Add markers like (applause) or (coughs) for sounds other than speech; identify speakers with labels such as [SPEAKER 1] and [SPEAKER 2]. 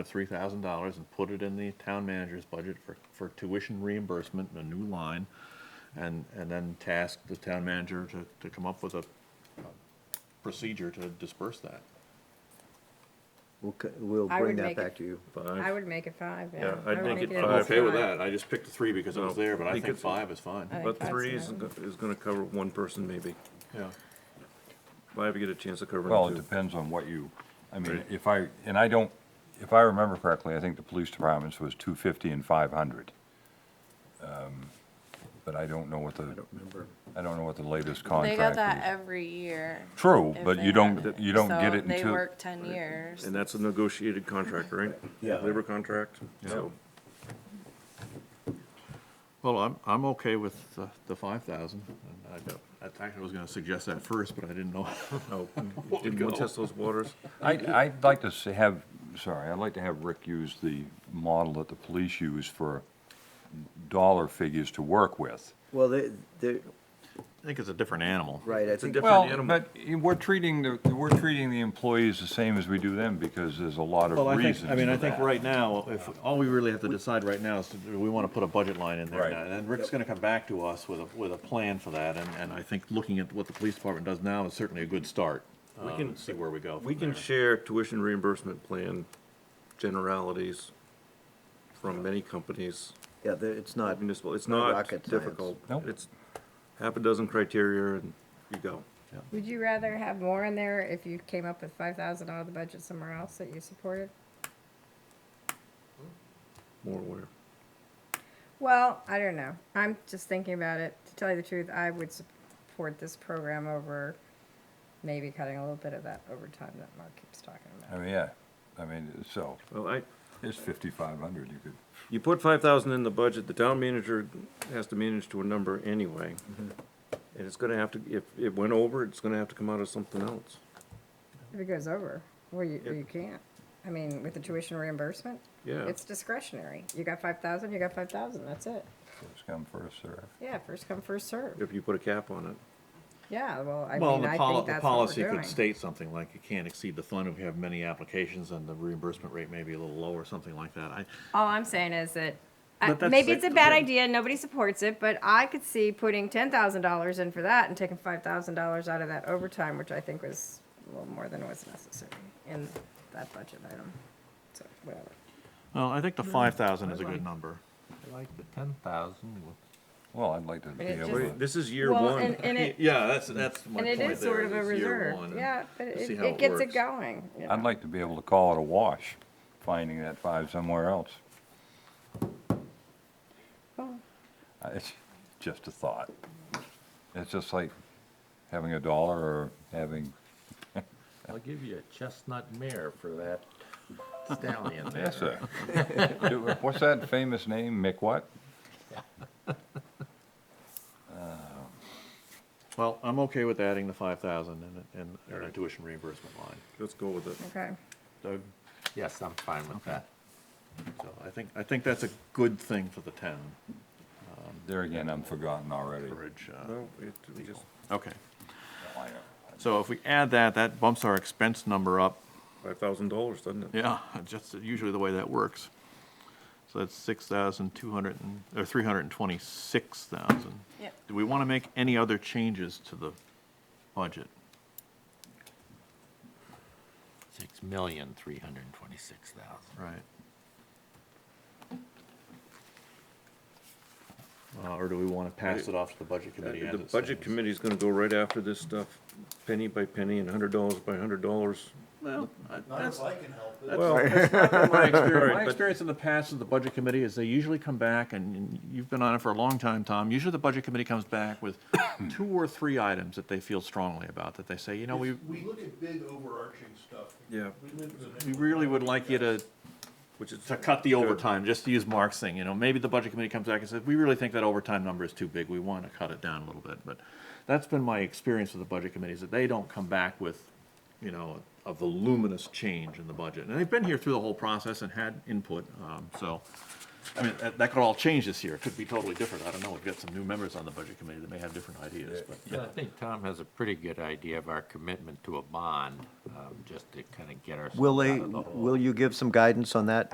[SPEAKER 1] three thousand dollars and put it in the town manager's budget for, for tuition reimbursement, a new line. And, and then task the town manager to, to come up with a a procedure to disperse that.
[SPEAKER 2] We'll, c- we'll
[SPEAKER 3] I
[SPEAKER 2] bring
[SPEAKER 3] would
[SPEAKER 2] that
[SPEAKER 3] make it-
[SPEAKER 2] back to you.
[SPEAKER 3] I would make it five, yeah.
[SPEAKER 4] Yeah, I'd
[SPEAKER 3] I would
[SPEAKER 4] make it
[SPEAKER 3] as
[SPEAKER 1] I'm
[SPEAKER 4] five.
[SPEAKER 1] okay with
[SPEAKER 3] five.
[SPEAKER 1] that, I just picked three because I was there, but I think
[SPEAKER 4] Because-
[SPEAKER 1] five is fine,
[SPEAKER 3] I think
[SPEAKER 4] But
[SPEAKER 3] five
[SPEAKER 4] three is,
[SPEAKER 3] seven.
[SPEAKER 4] go- is gonna cover one person maybe.
[SPEAKER 1] yeah.
[SPEAKER 4] Might have to get a chance to cover
[SPEAKER 5] Well, it
[SPEAKER 4] them too.
[SPEAKER 5] depends on what you, I mean,
[SPEAKER 4] Right.
[SPEAKER 5] if I, and I don't, if I remember correctly, I think the police departments was two fifty and five hundred. Um, But I don't know what the,
[SPEAKER 2] Remember,
[SPEAKER 5] I don't know what the latest
[SPEAKER 6] They got that
[SPEAKER 5] contract is.
[SPEAKER 6] every year.
[SPEAKER 5] True,
[SPEAKER 6] if
[SPEAKER 5] but
[SPEAKER 6] they
[SPEAKER 5] you
[SPEAKER 6] had
[SPEAKER 5] don't, you don't get
[SPEAKER 6] So
[SPEAKER 5] it
[SPEAKER 6] They
[SPEAKER 5] until,
[SPEAKER 6] work ten years.
[SPEAKER 4] And that's a negotiated contract, right?
[SPEAKER 2] Yeah.
[SPEAKER 4] Labor contract, so.
[SPEAKER 1] Well, I'm, I'm okay with the, the five thousand, and I, I actually was gonna suggest that first, but I didn't know. (laughs)
[SPEAKER 2] (laughs)
[SPEAKER 4] Oh,
[SPEAKER 1] Well,
[SPEAKER 4] Didn't
[SPEAKER 1] go.
[SPEAKER 4] want to test those waters.
[SPEAKER 5] I, I'd like to s- have, sorry, I'd like to have Rick use the model that the police use for dollar figures to work with.
[SPEAKER 2] well, they, they,
[SPEAKER 1] I think it's a different animal.
[SPEAKER 2] right, I think,
[SPEAKER 4] different
[SPEAKER 5] Well,
[SPEAKER 4] animal.
[SPEAKER 5] but we're treating, the we're treating the employees the same as we do them because there's a lot of
[SPEAKER 1] Well, I
[SPEAKER 5] reasons
[SPEAKER 1] think, I mean,
[SPEAKER 5] for
[SPEAKER 1] I think
[SPEAKER 5] that.
[SPEAKER 1] right now, if, all we really have to decide right now is, do we want to put a budget line in there?
[SPEAKER 5] Right.
[SPEAKER 1] now? And then Rick's gonna come back to us with a, with a plan for that, and, and I think looking at what the police department does now is certainly a good start.
[SPEAKER 4] We
[SPEAKER 1] Um,
[SPEAKER 4] can-
[SPEAKER 1] See where we go
[SPEAKER 4] We
[SPEAKER 1] from
[SPEAKER 4] can
[SPEAKER 1] there.
[SPEAKER 4] share tuition reimbursement plan generalities from many companies,
[SPEAKER 2] yeah, they- it's not,
[SPEAKER 4] municipal, it's
[SPEAKER 2] Not
[SPEAKER 4] not
[SPEAKER 2] rocket science.
[SPEAKER 4] difficult.
[SPEAKER 5] Nope.
[SPEAKER 4] It's half a dozen criteria and you go.
[SPEAKER 3] Would you rather have more in there if you came up with five thousand out of the budget somewhere else that you supported?
[SPEAKER 4] More aware.
[SPEAKER 3] Well, I don't know. I'm just thinking about it. To tell you the truth, I would support this program over maybe cutting a little bit of that overtime that Mark keeps talking
[SPEAKER 5] I
[SPEAKER 3] about.
[SPEAKER 5] mean, yeah, I mean, so,
[SPEAKER 4] Well, I,
[SPEAKER 5] it's fifty-five hundred, you could,
[SPEAKER 4] you put five thousand in the budget, the town manager has to manage to a number anyway. And it's gonna have to, if it went over, it's gonna have to come out of something else.
[SPEAKER 3] If it goes over, well, you,
[SPEAKER 4] It-
[SPEAKER 3] you can't. I mean, with the tuition reimbursement,
[SPEAKER 4] Yeah.
[SPEAKER 3] it's discretionary. You got five thousand, you got five thousand, that's it.
[SPEAKER 5] first come, first serve.
[SPEAKER 3] Yeah, first come, first serve.
[SPEAKER 4] If you put a cap on it.
[SPEAKER 3] Yeah, well, I
[SPEAKER 1] Well,
[SPEAKER 3] mean,
[SPEAKER 1] the
[SPEAKER 3] I
[SPEAKER 1] poli-
[SPEAKER 3] think
[SPEAKER 1] the
[SPEAKER 3] that's what
[SPEAKER 1] policy
[SPEAKER 3] we're doing.
[SPEAKER 1] could state something like, you can't exceed the fund if you have many applications, and the reimbursement rate may be a little lower, something like that. I,
[SPEAKER 3] All I'm saying is that, I-
[SPEAKER 1] But that's
[SPEAKER 3] maybe
[SPEAKER 1] like-
[SPEAKER 3] it's a bad
[SPEAKER 1] yeah.
[SPEAKER 3] idea, nobody supports it, but I could see putting ten thousand dollars in for that and taking five thousand dollars out of that overtime, which I think was a little more than was necessary in that budget item. So, whatever.
[SPEAKER 1] well, I think the five thousand is a good number.
[SPEAKER 7] Like the ten thousand,
[SPEAKER 5] Well, I'd like to be
[SPEAKER 3] it
[SPEAKER 5] able
[SPEAKER 3] just-
[SPEAKER 5] to.
[SPEAKER 4] Wait, This is year
[SPEAKER 3] Well,
[SPEAKER 4] one.
[SPEAKER 3] and, and it,
[SPEAKER 1] Yeah, that's, that's my
[SPEAKER 3] and
[SPEAKER 1] point
[SPEAKER 3] it
[SPEAKER 1] there.
[SPEAKER 3] is sort of a
[SPEAKER 1] is year
[SPEAKER 3] reserve,
[SPEAKER 1] one, and-
[SPEAKER 3] yeah, but
[SPEAKER 1] to
[SPEAKER 3] it,
[SPEAKER 1] see how
[SPEAKER 3] it gets
[SPEAKER 1] works.
[SPEAKER 3] it going, you
[SPEAKER 5] I'd
[SPEAKER 3] know.
[SPEAKER 5] like to be able to call it a wash, finding that five somewhere else. Uh, It's just a thought. It's just like having a dollar or having,
[SPEAKER 7] (laughs) I'll give you a chestnut mare for that stallion there.
[SPEAKER 5] yes, sir. (laughs) Do- What's that famous name, Mick what?
[SPEAKER 1] Well, I'm okay with adding the five thousand and, and, and a tuition reimbursement line.
[SPEAKER 4] Let's go with it.
[SPEAKER 3] Okay,
[SPEAKER 1] Doug?
[SPEAKER 7] Yes, I'm fine with that.
[SPEAKER 1] So I think, I think that's a good thing for the town,
[SPEAKER 5] There again, I'm forgotten already.
[SPEAKER 1] Ridge. uh,
[SPEAKER 4] No, it, we just,
[SPEAKER 1] Okay,
[SPEAKER 5] I know.
[SPEAKER 1] so if we add that, that bumps our expense number up.
[SPEAKER 4] five thousand dollars, doesn't it?
[SPEAKER 1] Yeah, (laughs) just usually the way that works. So that's six thousand two hundred and, or three hundred and twenty-six thousand.
[SPEAKER 6] Yep.
[SPEAKER 1] Do we want to make any other changes to the budget?
[SPEAKER 7] Six million, three hundred and twenty-six thousand.
[SPEAKER 1] Right. Uh, or do we want to pass it off to the budget committee as
[SPEAKER 4] Uh, The
[SPEAKER 1] it
[SPEAKER 4] budget
[SPEAKER 1] stands?
[SPEAKER 4] committee's gonna go right after this stuff, penny by penny and hundred dollars by hundred dollars.
[SPEAKER 1] Well, I- that's,
[SPEAKER 4] Well,
[SPEAKER 1] my (laughs) experience,
[SPEAKER 4] Right, but-
[SPEAKER 1] in the past with the budget committee is they usually come back, and- and you've been on it for a long time, Tom. Usually the budget committee comes back with (coughs) two or three items that they feel strongly about, that they say, you know, we,
[SPEAKER 8] We look at big overarching stuff.
[SPEAKER 4] yeah,
[SPEAKER 8] We live in a-
[SPEAKER 1] we really would like you to,
[SPEAKER 4] which is,
[SPEAKER 1] to cut the overtime, just to use Mark's thing, you know. Maybe the budget committee comes back and says, we really think that overtime number is too big, we want to cut it down a little bit. But that's been my experience with the budget committee, is that they don't come back with, you know, a voluminous change in the budget. And they've been here through the whole process and had input, um, so. I mean, that, that could all change this year. It could be totally different. I don't know. We've got some new members on the budget committee that may have different ideas, but.
[SPEAKER 7] Yeah, I think Tom has a pretty good idea of our commitment to a bond, um, just to kind of get ourselves
[SPEAKER 2] Will
[SPEAKER 7] out
[SPEAKER 2] they,
[SPEAKER 7] of the hole.
[SPEAKER 2] will you give some guidance on that